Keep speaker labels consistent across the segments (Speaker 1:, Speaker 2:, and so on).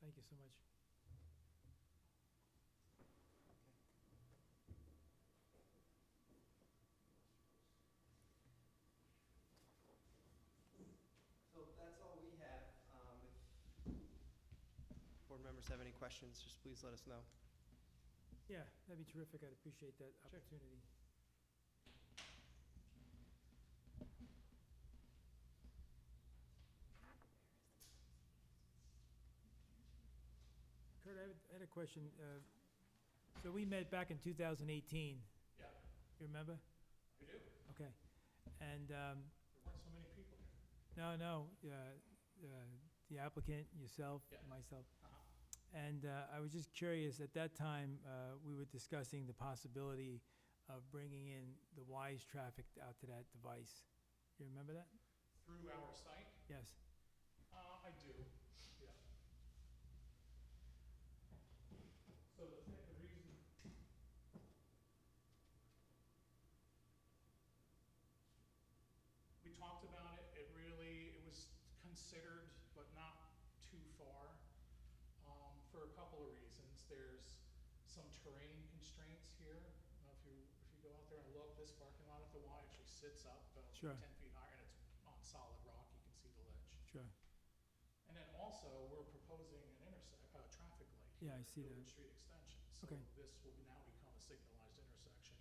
Speaker 1: Thank you so much.
Speaker 2: So that's all we have. Um, if Board members have any questions, just please let us know.
Speaker 1: Yeah, that'd be terrific. I'd appreciate that
Speaker 2: Sure.
Speaker 1: opportunity. Kurt, I had- I had a question. uh, So we met back in 2018.
Speaker 3: Yeah.
Speaker 1: You remember?
Speaker 3: I do.
Speaker 1: Okay. And, um,
Speaker 3: There weren't so many people here.
Speaker 1: no, no, uh, uh, the applicant, yourself,
Speaker 3: Yeah.
Speaker 1: myself.
Speaker 3: Uh-huh.
Speaker 1: And uh, I was just curious, at that time, uh, we were discussing the possibility of bringing in the WISE traffic out to that device. You remember that?
Speaker 3: Through our site?
Speaker 1: Yes.
Speaker 3: Uh, I do, yeah. So the, the reason. We talked about it, it really, it was considered, but not too far, um, for a couple of reasons. There's some terrain constraints here. Now, If you, if you go out there and look, this parking lot at the Y actually sits up about
Speaker 1: Sure.
Speaker 3: ten feet higher, and it's on solid rock, you can see the ledge.
Speaker 1: Sure.
Speaker 3: And then also, we're proposing an intersect, a traffic light.
Speaker 1: Yeah,
Speaker 3: here,
Speaker 1: I see
Speaker 3: Village
Speaker 1: that.
Speaker 3: Street Extension.
Speaker 1: Okay.
Speaker 3: So this will now become a signalized intersection.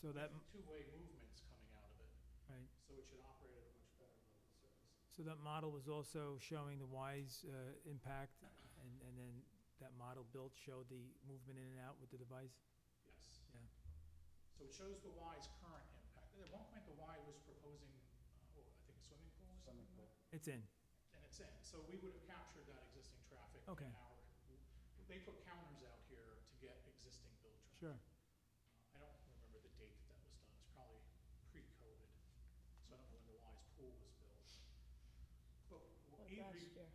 Speaker 1: So that,
Speaker 3: with Two-way movements coming out of it,
Speaker 1: right,
Speaker 3: so it should operate at a much better level of service.
Speaker 1: so that model was also showing the WISE uh, impact, and and then that model built showed the movement in and out with the device?
Speaker 3: Yes.
Speaker 1: Yeah.
Speaker 3: So it shows the Y's current impact. At one point, the Y was proposing, uh, well, I think a swimming pool or something like that.
Speaker 1: It's in,
Speaker 3: And it's in, so we would have captured that existing traffic. in
Speaker 1: Okay.
Speaker 3: our- They put counters out here to get existing build traffic.
Speaker 1: sure.
Speaker 3: I don't remember the date that that was done, it's probably pre-COVID, so I don't know when the Wise Pool was built. But
Speaker 4: Like
Speaker 3: we,
Speaker 4: last
Speaker 3: re-
Speaker 4: year.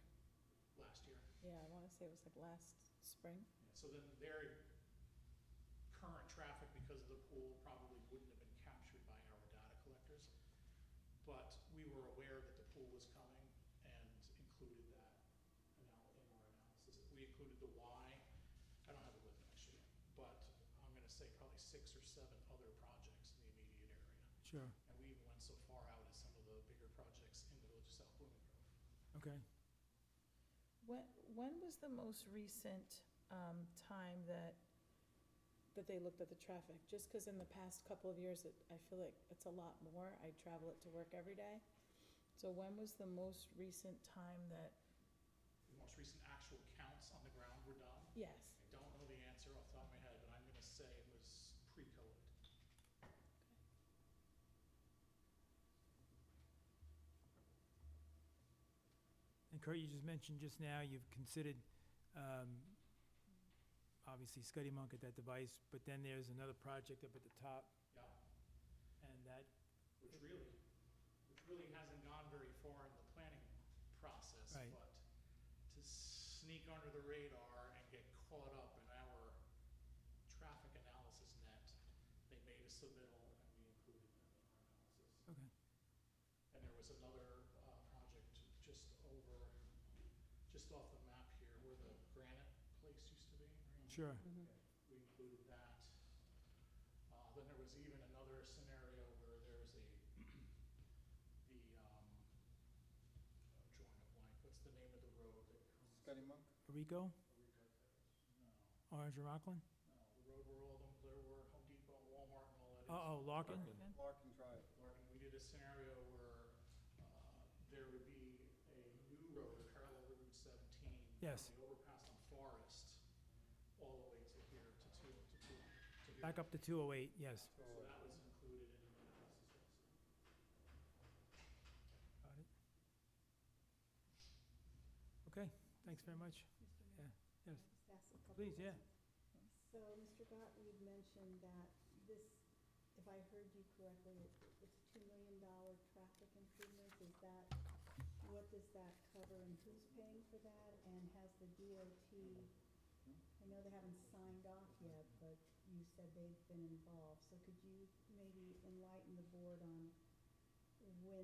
Speaker 3: last year,
Speaker 4: Yeah, I wanna say it was like last spring.
Speaker 3: so then their current traffic because of the pool probably wouldn't have been captured by our data collectors. But we were aware that the pool was coming and included that anal- in our analysis. We included the Y, I don't have it with me actually, but I'm gonna say probably six or seven other projects in the immediate area.
Speaker 1: Sure,
Speaker 3: And we even went so far out as some of the bigger projects in the village of South Blooming Grove.
Speaker 1: okay.
Speaker 4: When, when was the most recent, um, time that, that they looked at the traffic? Just 'cause in the past couple of years, it, I feel like it's a lot more. I travel it to work every day. So when was the most recent time that,
Speaker 3: The most recent actual counts on the ground were done.
Speaker 4: yes,
Speaker 3: I don't know the answer off the top of my head, but I'm gonna say it was pre-COVID.
Speaker 1: And Kurt, you just mentioned just now, you've considered, um, obviously Scuddy Monk at that device, but then there's another project up at the top,
Speaker 3: Yeah,
Speaker 1: and that,
Speaker 3: which really, which really hasn't gone very far in the planning process,
Speaker 1: Right.
Speaker 3: but to sneak under the radar and get caught up in our traffic analysis net, they made a submittal and we included them in our analysis.
Speaker 1: okay,
Speaker 3: And there was another, uh, project just over, just off the map here where the granite place used to be. right?
Speaker 1: sure,
Speaker 3: We included that. Uh, then there was even another scenario where there's a, the, um, I'm drawing a blank, what's the name of the road that comes?
Speaker 5: Scotty Monk?
Speaker 3: No,
Speaker 1: Rico, Orange and Rockland?
Speaker 3: no, the road where all them, there were Home Depot, and Walmart and all that is.
Speaker 1: Uh-oh, Larkin,
Speaker 5: Larkin Drive.
Speaker 3: Larkin, we did a scenario where, uh, there would be a new road parallel to Route seventeen.
Speaker 1: Yes.
Speaker 3: From the overpass on Forest, all the way to here, to two, to two, to here.
Speaker 1: back up to two oh eight, yes.
Speaker 3: So that was included in the analysis also.
Speaker 1: Got it. Okay, thanks very much. Yeah, yes,
Speaker 6: Just ask a couple
Speaker 1: please, yeah,
Speaker 6: questions. So, Mr. Gott, you mentioned that this, if I heard you correctly, it- it's two million dollar traffic improvements, is that, what does that cover and who's paying for that? And has the DOT, I know they haven't signed off yet, but you said they've been involved, so could you maybe enlighten the board on when